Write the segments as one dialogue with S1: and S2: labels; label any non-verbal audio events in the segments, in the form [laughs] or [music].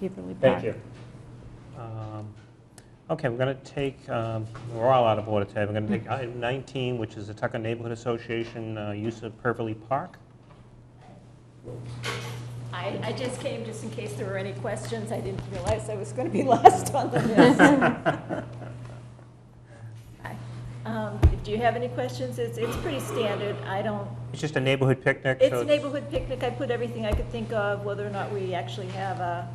S1: Heatherly Park.
S2: Thank you. Um, Okay, we're going to take, um, we're all out of order today. We're going to take
S3: Mm-hmm.
S2: item 19, which is the Tucker Neighborhood Association uh, use of Pervely
S3: [laughs]
S2: Park.
S3: I, I just came just in case there were any questions. I didn't realize I was going to be [laughs] last on the list.
S2: [laughs]
S3: Hi. Um, Do you have any questions? It's, it's pretty standard. I don't,
S2: It's just a neighborhood picnic, so...
S3: it's a neighborhood picnic. I put everything I could think of, whether or not we actually have a,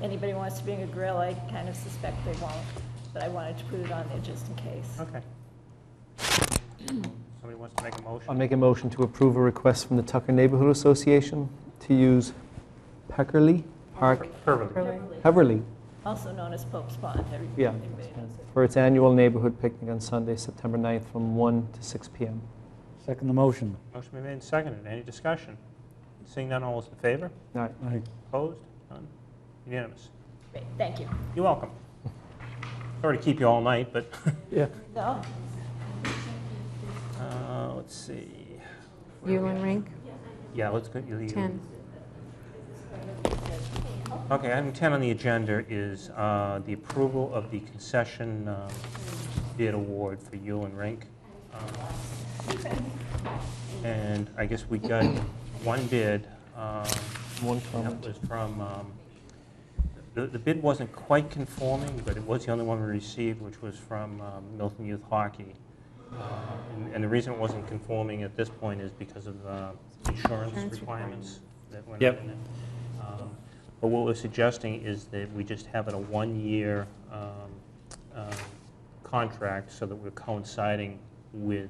S3: anybody wants to bring a grill, I kind of suspect they won't. But I wanted to put it on there just in case.
S2: Okay. Somebody wants to make a motion?
S4: I'll make a motion to approve a request from the Tucker Neighborhood Association to use Peckerly Park,
S2: Pervely.
S1: Really?
S4: Heverly,
S3: Also known as Pope's Pond. Every-
S4: Yeah.
S3: everybody knows it.
S4: for its annual neighborhood picnic on Sunday, September 9th, from 1 to 6 p.m.
S5: Second the motion.
S2: Motion been made and seconded. Any discussion? Seeing none, all those in favor?
S4: All right.
S5: Aye.
S2: Opposed? None? Unanimous.
S3: Great, thank you.
S2: You're welcome. Sorry to keep you all night, but, [laughs]
S5: Yeah.
S3: No,
S2: uh, let's see.
S1: Yulin Rink,
S2: Yeah, let's go. you- you-
S1: 10.
S2: Okay, item 10 on the agenda is uh, the approval of the concession um, bid award for Yulin Rink. Um, And I guess we got one bid. um,
S4: One
S2: That
S4: comment.
S2: was from, um, the the bid wasn't quite conforming, but it was the only one we received, which was from um, Milton Youth Hockey. Uh, and- And the reason it wasn't conforming at this point is because of uh, insurance requirements that went
S5: Yep.
S2: in it. Um, But what we're suggesting is that we just have it a one-year um, um, contract so that we're coinciding with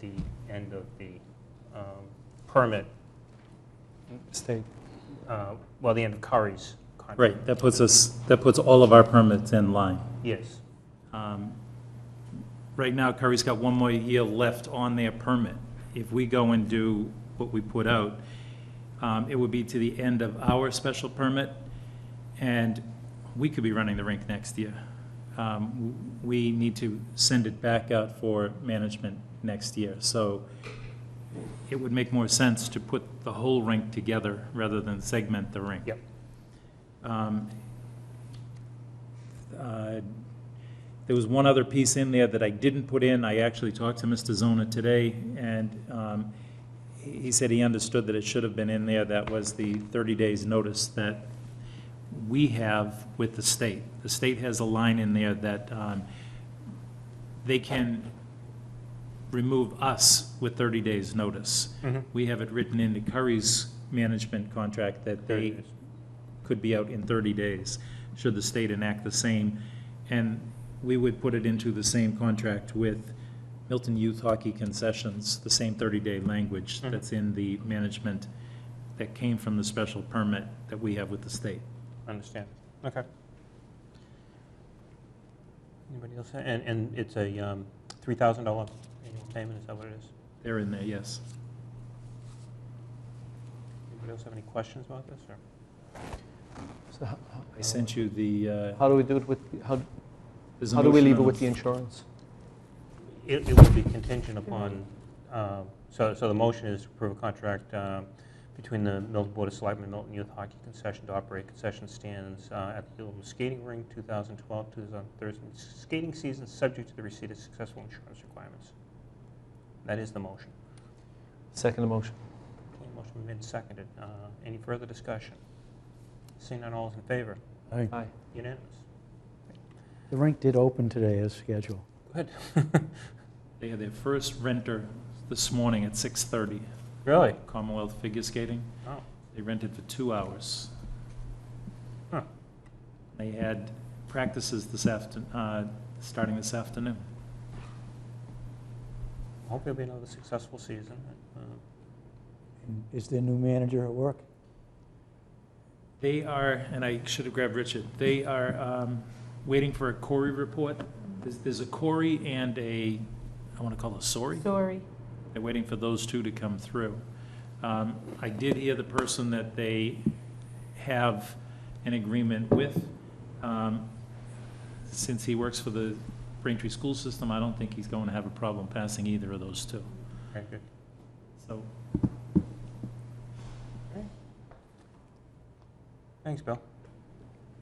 S2: the end of the um, permit,
S4: State.
S2: uh, well, the end of Curry's contract.
S6: Right, that puts us, that puts all of our permits in line.
S2: Yes.
S6: Um, Right now, Curry's got one more year left on their permit. If we go and do what we put out, um, it would be to the end of our special permit, and we could be running the rink next year. Um, w- We need to send it back out for management next year, so it would make more sense to put the whole rink together rather than segment the rink.
S2: Yep.
S6: Um, uh, There was one other piece in there that I didn't put in. I actually talked to Mr. Zona today, and um, he he said he understood that it should have been in there. That was the 30 days' notice that we have with the state. The state has a line in there that um, they can remove us with 30 days' notice.
S2: Mhm.
S6: We have it written into Curry's management contract that
S2: There it
S6: they
S2: is.
S6: could be out in 30 days, should the state enact the same. And we would put it into the same contract with Milton Youth Hockey Concessions, the same 30-day language
S2: Mhm.
S6: that's in the management that came from the special permit that we have with the state.
S2: Understand. Okay. Anybody else? And, and it's a um, $3,000 annual payment, is that what it is?
S6: They're in there, yes.
S2: Anybody else have any questions about this, or?
S4: So how-
S6: I sent you the, uh,
S4: How do we do it with, how
S6: there's a
S4: how do we
S6: motion
S4: leave it
S6: on
S4: with the insurance?
S2: It, it would be contingent upon, um, so, so the motion is to approve a contract um, between the Milton Board of Selectmen, Milton Youth Hockey Concession to operate concession stands uh, at the Gilman Skating Rink, 2012, 2013 skating season, subject to the receipt of successful insurance requirements. That is the motion.
S4: Second motion.
S2: Okay, Motion been made and seconded. Uh, Any further discussion? Seeing none, all is in favor?
S5: Aye.
S4: Aye.
S2: Unanimous?
S5: The rink did open today as scheduled.
S2: Good. [laughs]
S6: They had their first renter this morning at 6:30,
S2: Really?
S6: Commonwealth Figure Skating.
S2: Oh,
S6: They rented for two hours.
S2: Huh.
S6: They had practices this after, uh, starting this afternoon.
S2: hope it'll be another successful season. Uh,
S5: And Is their new manager at work?
S6: They are, and I should have grabbed Richard, they are um, waiting for a Corey report. There's, there's a Corey and a, I want to call it a Sori?
S1: Sorry.
S6: They're waiting for those two to come through. Um, I did hear the person that they have an agreement with. Um, Since he works for the Braintree School System, I don't think he's going to have a problem passing either of those two.
S2: Very good.
S6: So
S2: Thanks, Bill.